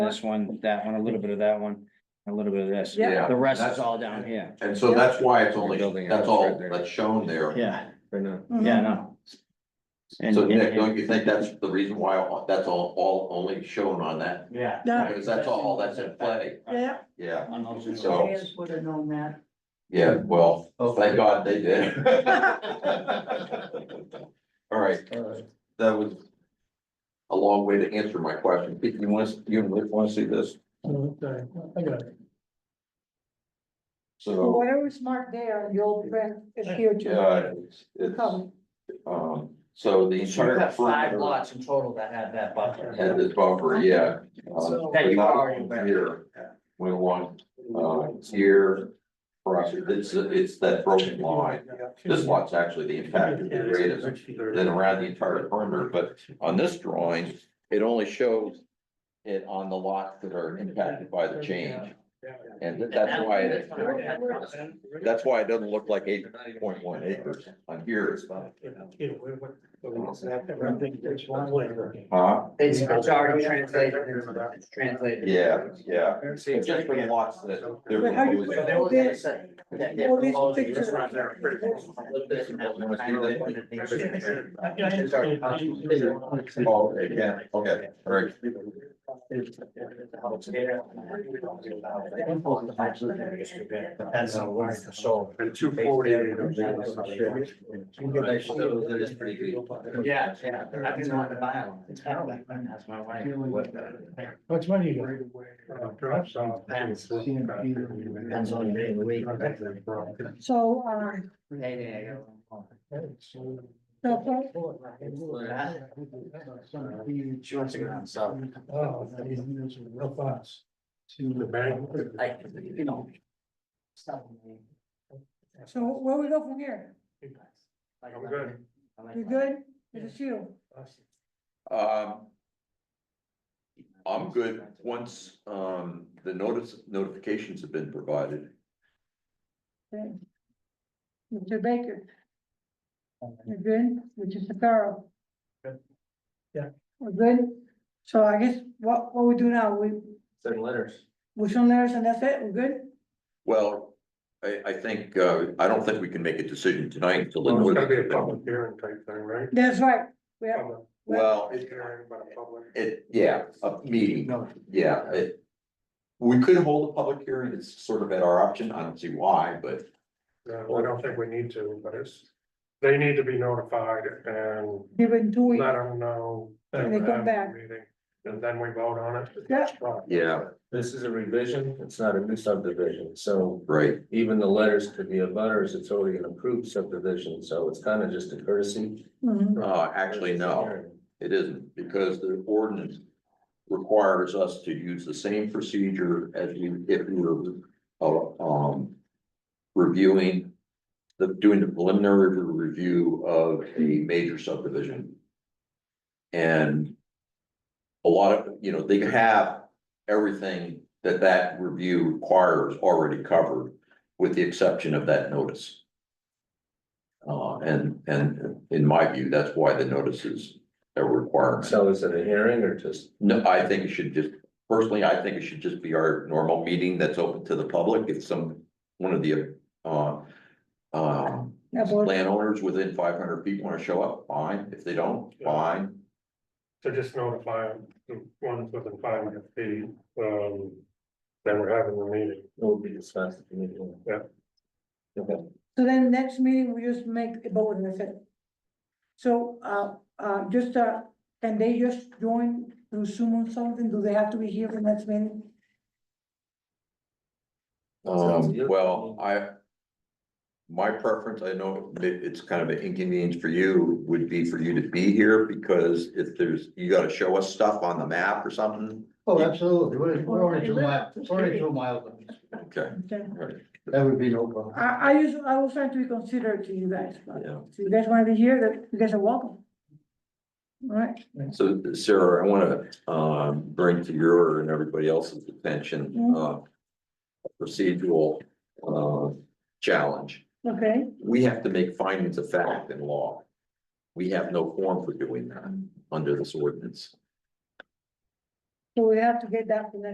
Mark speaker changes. Speaker 1: This one, that one, a little bit of that one, a little bit of this.
Speaker 2: Yeah.
Speaker 1: The rest
Speaker 3: that's-
Speaker 1: is all down here.
Speaker 3: And so that's why it's only,
Speaker 4: Building
Speaker 3: that's
Speaker 4: house
Speaker 3: all
Speaker 4: right there.
Speaker 3: that's shown there.
Speaker 1: Yeah,
Speaker 4: Right now.
Speaker 2: Mm-hmm.
Speaker 1: yeah, no. And-
Speaker 3: So
Speaker 1: and-
Speaker 3: Nick, don't you think that's the reason why all- that's all, all only shown on that?
Speaker 1: Yeah.
Speaker 2: Yeah.
Speaker 3: Because that's all that's in play,
Speaker 2: Yeah.
Speaker 3: yeah,
Speaker 1: On those two.
Speaker 3: So-
Speaker 2: Fans would have known that.
Speaker 3: yeah, well, thank God they did. All right, that was a long way to answer my question. Pete, you want, to- you want to see this?
Speaker 5: Okay, I got it.
Speaker 3: So,
Speaker 2: Whatever's marked there, you'll print is here to
Speaker 3: uh, it's, it's,
Speaker 2: cover.
Speaker 3: um, so the
Speaker 6: You've
Speaker 3: entire
Speaker 6: got five
Speaker 3: perimeter
Speaker 6: lots in total that had that buffer.
Speaker 3: had this buffer, yeah.
Speaker 6: So-
Speaker 3: Um,
Speaker 1: That you've already
Speaker 3: but not
Speaker 1: been-
Speaker 3: Here, went along, uh, here, across, it's, it's that broken line. This lot's actually the impact of the greatest, then around the entire perimeter, but on this drawing, it only shows it on the lots that are impacted by the change. And that's why, it- that's why it doesn't look like eight point one acres on here. Huh?
Speaker 6: It's, it's already translated, into- it's translated.
Speaker 3: Yeah, yeah. It's just for the lots that they're.
Speaker 2: But how you-
Speaker 6: So they were gonna say that they're
Speaker 2: Well, this
Speaker 6: proposing
Speaker 2: picture-
Speaker 6: this round there. It's already constituted.
Speaker 3: Oh, okay, yeah, okay, all right.
Speaker 6: Depends on where it's sold.
Speaker 5: And two forty. That
Speaker 6: is pretty Yeah, yeah, I just wanted to buy one. It's kind of like, that's my wife.
Speaker 5: What's money? Drops
Speaker 6: Depends. Depends on the day of the week.
Speaker 2: So, um,
Speaker 6: Hey,
Speaker 2: that's all.
Speaker 6: there. She wants to go down south.
Speaker 5: Oh, that is real fast. To the bank.
Speaker 6: Like, you know. Stop me.
Speaker 2: so where we go from here?
Speaker 5: I'm good.
Speaker 2: You good? It's you.
Speaker 3: Um, I'm good, once, um, the notice, notifications have been provided.
Speaker 2: Mr. Baker, you're good, which is the Pharaoh.
Speaker 5: Good. Yeah.
Speaker 2: We're good. So I guess what, what we do now, we,
Speaker 6: Certain letters.
Speaker 2: we show letters and that's it, we're good?
Speaker 3: Well, I, I think, uh, I don't think we can make a decision tonight until the
Speaker 5: Well, It's gonna be a
Speaker 3: notice.
Speaker 5: public hearing type thing, right?
Speaker 2: That's right. We have,
Speaker 5: Public
Speaker 3: Well, it,
Speaker 5: hearing, but a public-
Speaker 3: it, yeah, a meeting,
Speaker 6: No.
Speaker 3: yeah, it. We could hold a public hearing, it's sort of at our option, I don't see why, but,
Speaker 5: No, I don't think we need to, but it's, they need to be notified and
Speaker 2: given two weeks.
Speaker 5: let them know. that
Speaker 2: When they
Speaker 5: we're
Speaker 2: come
Speaker 5: having a
Speaker 2: back.
Speaker 5: meeting, And then we vote on it.
Speaker 2: Yeah.
Speaker 3: yeah,
Speaker 4: This is a revision, it's not a new subdivision, so
Speaker 3: right,
Speaker 4: even the letters to the abutters, it's already an approved subdivision, so it's kind of just a courtesy.
Speaker 2: Mhm.
Speaker 3: uh, actually, no. It isn't, because the ordinance requires us to use the same procedure as we, if we were, uh, um. Reviewing, the, doing the preliminary review of a major subdivision. And. A lot of, you know, they have everything that that review requires already covered, with the exception of that notice. Uh, and, and in my view, that's why the notice is a requirement.
Speaker 4: So is it a hearing or just?
Speaker 3: No, I think it should just, personally, I think it should just be our normal meeting that's open to the public. If some, one of the, uh, um,
Speaker 2: Yeah, boy.
Speaker 3: landowners within five hundred feet want to show up, fine. If they don't, fine.
Speaker 5: to just notify the ones within five hundred feet, um, that we're having the meeting.
Speaker 4: It will be discussed at the meeting.
Speaker 5: Yeah.
Speaker 4: Okay.
Speaker 2: So then next meeting, we just make a vote and that's it. So, uh, uh, just, uh, can they just join through Zoom or something? Do they have to be here for next meeting?
Speaker 4: Sounds
Speaker 3: Um,
Speaker 4: good.
Speaker 3: well, I, my preference, I know it- it's kind of an inconvenience for you, would be for you to be here because if there's, you gotta show us stuff on the map or something.
Speaker 7: Oh, absolutely, we're, we're already two miles, we're already two miles.
Speaker 3: Okay,
Speaker 2: Okay.
Speaker 3: all right,
Speaker 7: That would be no problem.
Speaker 2: I, I just, I was trying to be considerate to you guys, but
Speaker 3: yeah.
Speaker 2: if you guys wanna be here, then you guys are welcome. All right,
Speaker 3: So Sarah, I want to um bring to your and everybody else's attention uh. a Procedural uh challenge.
Speaker 2: okay,
Speaker 3: We have to make findings of fact in law. We have no form for doing that under this ordinance.
Speaker 2: So we have to get that for next